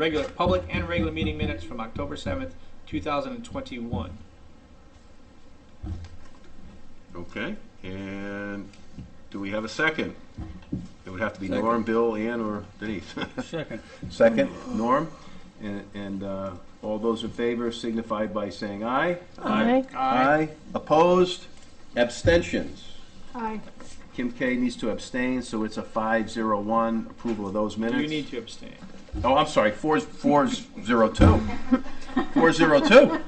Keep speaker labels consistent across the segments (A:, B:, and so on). A: regular, public and regular meeting minutes from October 7th, 2021.
B: Okay, and do we have a second? It would have to be
C: Second.
B: Norm, Bill, Ann, or Denise.
C: Second.
B: Second, Norm, and, and uh, all those in favor signify by saying aye.
D: Aye.
B: Aye. Opposed? Abstentions?
D: Aye.
B: Kim K needs to abstain, so it's a five zero one approval of those minutes.
A: You need to abstain.
B: Oh, I'm sorry, four, four zero two. Four zero two.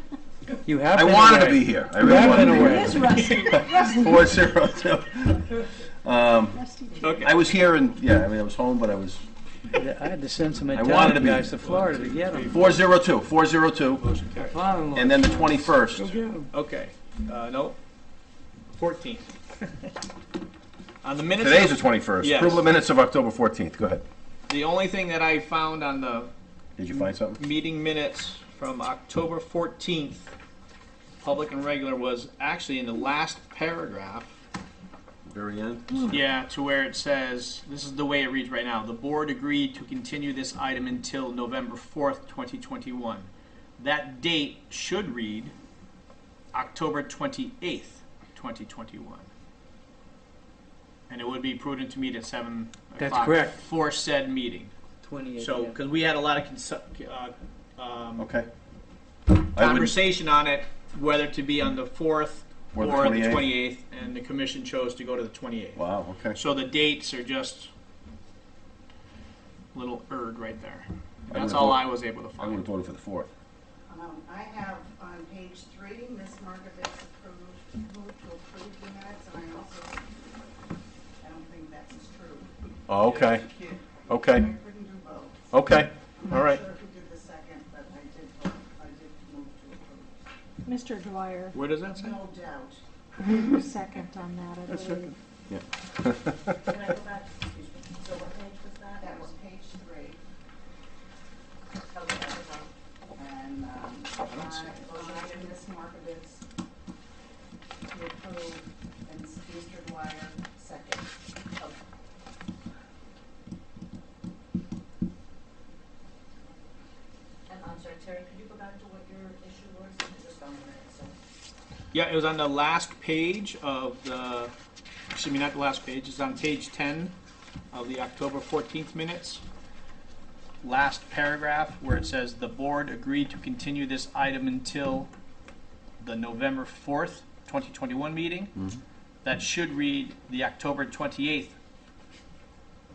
C: You have
B: I
C: been
B: wanted to
C: away.
B: be here. I really
C: have
B: wanted
C: been away.
B: to
D: It's
B: be here.
D: Rusty. Rusty.
B: Four zero two.
D: Rusty.
B: I
A: Okay.
B: was here and, yeah, I mean, I was home, but I was,
C: I had to send some
B: wanted to
C: Italian
B: be-
C: guys to Florida to get them.
B: four zero two, four zero two,
A: Motion carries.
B: and then the twenty-first.
A: Okay, uh, no, 14. On the minutes.
B: Today's the twenty-first.
A: Yes.
B: Approval of minutes of October fourteenth. Go ahead.
A: The only thing that I found on the
B: Did you find something?
A: meeting minutes from October 14th, public and regular, was actually in the last paragraph.
B: Very end.
A: Yeah, to where it says, this is the way it reads right now, the board agreed to continue this item until November 4th, 2021. That date should read October 28th, 2021. And it would be prudent to meet at 7 o'clock.
C: That's correct.
A: For said meeting.
C: Twenty-eight.
A: So, because we had a lot of consu- uh, um,
B: Okay. I Oh, would,
A: conversation on it, whether to be on the 4th
B: Or the
A: or the
B: 28th.
A: 28th, and the commission chose to go to the 28th.
B: wow, okay.
A: So the dates are just a little erred right there.
B: I
A: That's
B: would've
A: all
B: vote-
A: I was able to
B: I would
A: find.
B: have voted for the fourth.
E: Um, I have on page three, Ms. Markovitz approved, moved to approve the minutes, and I also, I don't think that's true.
B: Oh, okay,
E: Thank you. I
B: okay,
E: couldn't do both.
B: okay.
E: I'm
B: All
E: not
B: right.
E: sure who did the second, but I did, vote- I did move to approve.
D: Mr. Dwyer,
A: Where does that say?
E: No doubt.
D: you second on that, I believe.
F: Can I go back? Excuse me. So what page was that?
E: That was page three,
F: Okay, that was on-
E: and, um, I,
A: don't see it.
E: I and Ms. Markovitz to approve, and Mr. Dwyer second.
F: And I'm sorry, Terry, could you go back to what your issue was? It was on the minutes, so.
A: Yeah, it was on the last page of the, excuse me, not the last page, it's on page 10 of the October 14th minutes. Last paragraph where it says, "The board agreed to continue this item until the November 4th, 2021 meeting." That should read the October 28th,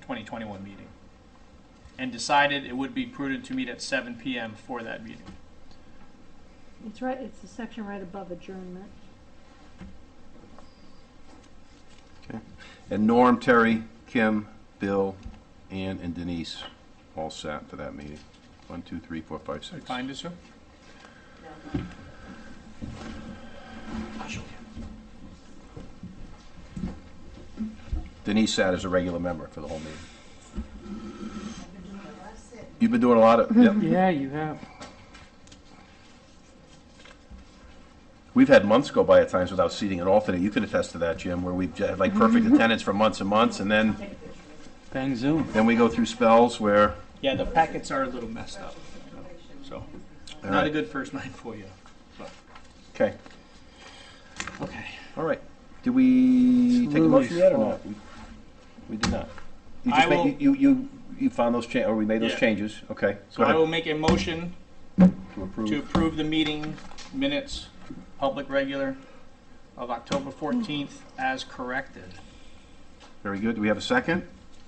A: 2021 meeting. And decided it would be prudent to meet at 7 PM for that meeting.
D: It's right, it's the section right above adjournment.
B: And Norm, Terry, Kim, Bill, Ann, and Denise all sat for that meeting. One, two, three, four, five, six.
A: Find it, sir?
B: Denise sat as a regular member for the whole meeting.
E: I've been doing a lot of sitting.
B: You've been doing a lot of, yeah.
C: Yeah, you have.
B: We've had months go by at times without seating an alternate. You can attest to that, Jim, where we've j- had like perfect attendance for months and months, and then,
C: Bang zoom.
B: then we go through spells where,
A: Yeah, the packets are a little messed up. So,
B: all
A: not a
B: right,
A: good first night for you.
B: okay,
A: Okay.
B: all right. Did we
C: It's
B: take a motion
C: Lily's
B: yet or
C: fault.
B: not? We- We did not. You
A: I
B: just
A: will-
B: made, you, you, you found those cha, or we made those
A: Yeah.
B: changes, okay.
A: So
B: Go
A: I
B: ahead.
A: will make a motion
B: To
A: to
B: approve.
A: approve the meeting minutes, public regular, of October 14th as corrected.
B: Very good. Do we have a second?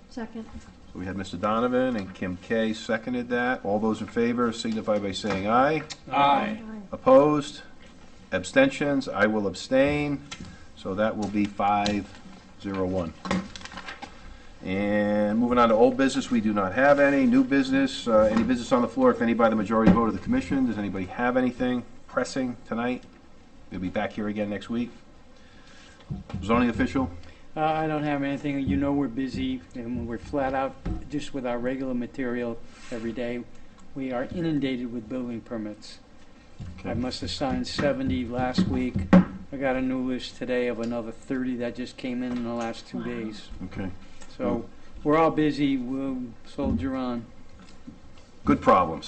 D: Second.
B: So we had Mr. Donovan and Kim K seconded that. All those in favor signify by saying aye.
A: Aye.
B: Opposed? Abstentions? I will abstain. So that will be five, zero, one. And moving on to old business, we do not have any. New business, uh, any business on the floor, if any by the majority vote of the commission. Does anybody have anything pressing tonight? We'll be back here again next week. Zoning official?
C: Uh, I don't have anything. You know we're busy and we're flat out just with our regular material every day. We are inundated with building permits. I must have signed 70 last week. I got a new list today of another 30 that just came in in the last two
D: Wow.
C: days.
B: Okay.
C: So we're all busy. We'll soldier on.
B: Good problems.